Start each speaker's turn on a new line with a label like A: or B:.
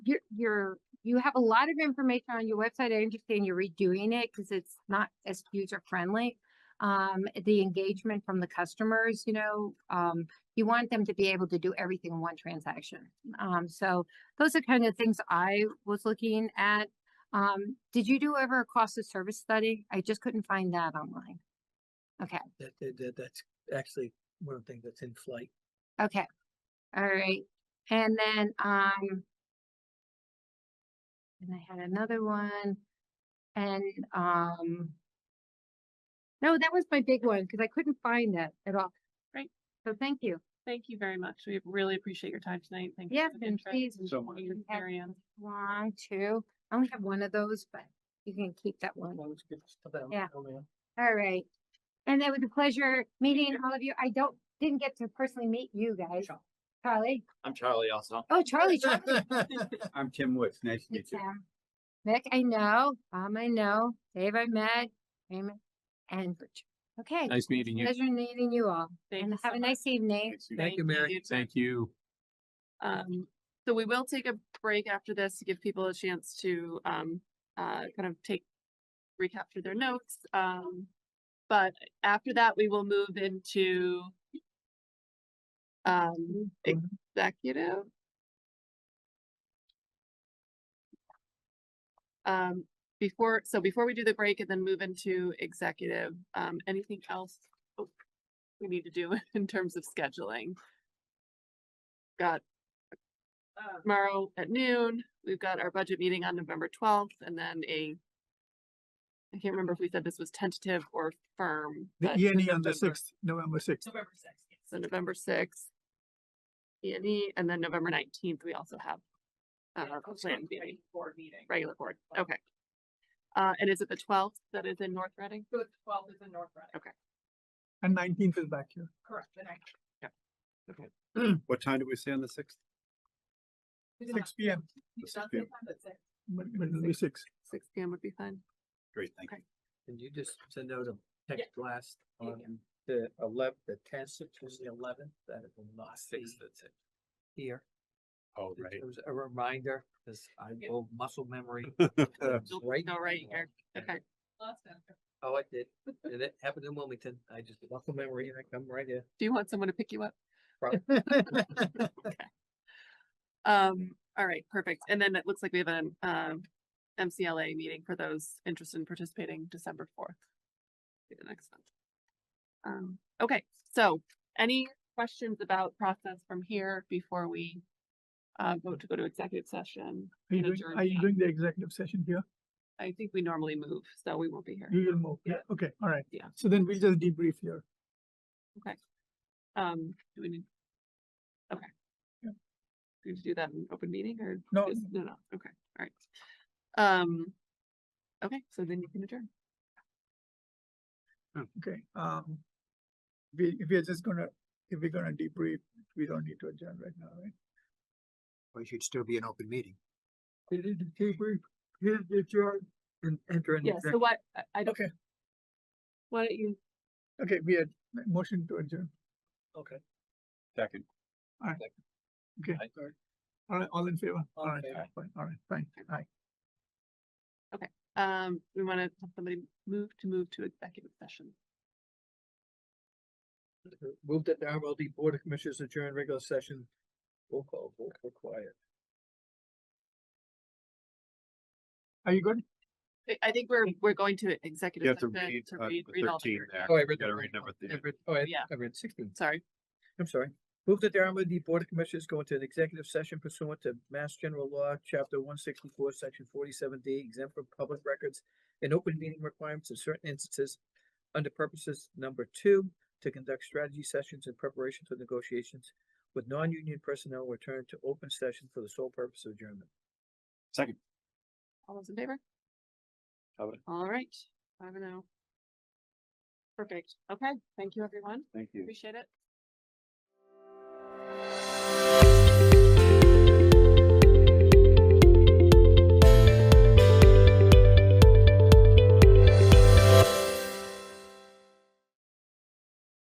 A: you're, you're, you have a lot of information on your website. I understand you're redoing it because it's not as user friendly. Um, the engagement from the customers, you know, um, you want them to be able to do everything in one transaction. Um, so those are kind of things I was looking at. Um, did you do ever a cost of service study? I just couldn't find that online.
B: That, that, that- that's actually one of the things that's in flight.
A: Okay, all right, and then, um. And I had another one, and, um. No, that was my big one, cause I couldn't find that at all.
C: Great.
A: So thank you.
C: Thank you very much. We really appreciate your time tonight. Thank you.
A: Yes,
C: for the
A: and
C: interest
A: please.
C: and
A: So
C: for
A: much.
C: your
A: We have-
C: experience.
A: One, two, I only have one of those, but you can keep that one. Yeah. All right. And it was a pleasure meeting all of you. I don't, didn't get to personally meet you guys.
B: Sure.
A: Charlie,
D: I'm Charlie also.
A: oh, Charlie, Charlie.
D: I'm Tim Woods. Nice to
A: Hey,
D: meet you.
A: Sam. Mick, I know, Tom, I know, Dave, I met, Raymond, and Richard. Okay,
E: Nice meeting you.
A: pleasure meeting you all,
C: Thank
A: and
C: you
A: have
C: so
A: a
C: much.
A: nice evening.
B: Thank you, Mary.
E: Thank you.
C: Um, so we will take a break after this to give people a chance to, um, uh, kind of take, recapture their notes. Um, but after that, we will move into um,
F: Mm-hmm.
C: executive. Um, before, so before we do the break and then move into executive, um, anything else oh, we need to do in terms of scheduling? Got
F: Um.
C: tomorrow at noon. We've got our budget meeting on November twelfth and then a I can't remember if we said this was tentative or firm.
F: The
C: but
F: E and E on the
C: November-
F: sixth, November sixth.
C: November sixth. So November sixth. E and E, and then November nineteenth, we also have uh, a planned meeting,
G: board meeting.
C: regular board. Okay. Uh, and is it the twelfth that is in North Reading?
G: So it's twelve is in North Reading,
F: And nineteenth is back here.
G: correct, the night.
D: What time do we say on the sixth?
G: It's
F: Six P M,
D: This
G: not
D: is
G: the time that's it.
F: but but it'll be six.
C: Six P M would be fine.
D: Great, thank you.
B: And you just send out a text blast
G: Yeah, yeah.
B: on the eleventh, the tenth, Tuesday eleventh, that it will not be
D: that's it.
B: here.
D: Oh,
B: It was a reminder, because I
G: Yeah.
B: will muscle memory.
D: right.
B: It's
C: You'll
B: right
C: go right
B: there.
C: here. Okay.
G: Last time.
B: Oh, I did. And it happened in Wilmington. I just muscle memory and I come right here.
C: Do you want someone to pick you up? Um, all right, perfect. And then it looks like we have an um MCLA meeting for those interested in participating December fourth. The next one. Um, okay, so any questions about process from here before we uh vote to go to executive session?
F: Are you
C: And
F: doing, are you
C: adjourned.
F: doing the executive session here?
C: I think we normally move, so we won't be here.
F: You will move, yeah,
C: Yeah.
F: okay, all right.
C: Yeah.
F: So then we'll just debrief here.
C: Um, do we need? Okay.
F: Yeah.
C: Do we need to do that in open meeting or?
F: No,
C: just- No, no, okay, all right. Um, okay, so then you can adjourn.
F: Okay, um. We, we are just gonna, if we're gonna debrief, we don't need to adjourn right now, right?
D: We should still be an open meeting.
B: And enter an
C: Yeah, so
B: executive.
C: what, I- I don't,
F: Okay,
C: why don't you,
F: okay, we had motion to adjourn.
B: Okay.
D: Second.
F: Okay,
D: Aye.
F: all right, all in favor? All right,
B: Okay.
F: fine, all right, fine, aye.
C: um, we wanna have somebody move to move to executive session.
B: Moved that the RLD Board of Commissioners adjourn regular session. Roll call, vote required.
F: Are you good?
C: I, I think we're, we're going to
D: You
C: executive
D: have to
C: session
D: read,
C: to
D: uh,
C: read,
D: the
C: read all.
D: thirteen there.
B: Oh, I read
D: You gotta
B: that.
D: read number
B: I
D: thirteen.
B: read, oh, I,
C: Yeah.
B: I read sixteen.
C: Sorry,
B: I'm sorry. Move that the RMLD Board of Commissioners go into an executive session pursuant to Mass General Law, Chapter one sixty-four, Section forty-seven D, exempt from public records and open meeting requirements in certain instances under purposes number two, to conduct strategy sessions in preparation for negotiations with non-union personnel return to open session for the sole purpose of adjournment.
D: Second.
C: all those in favor?
D: Covered.
C: All right, I don't know. Perfect, okay, thank you, everyone,
D: Thank you.
C: appreciate it.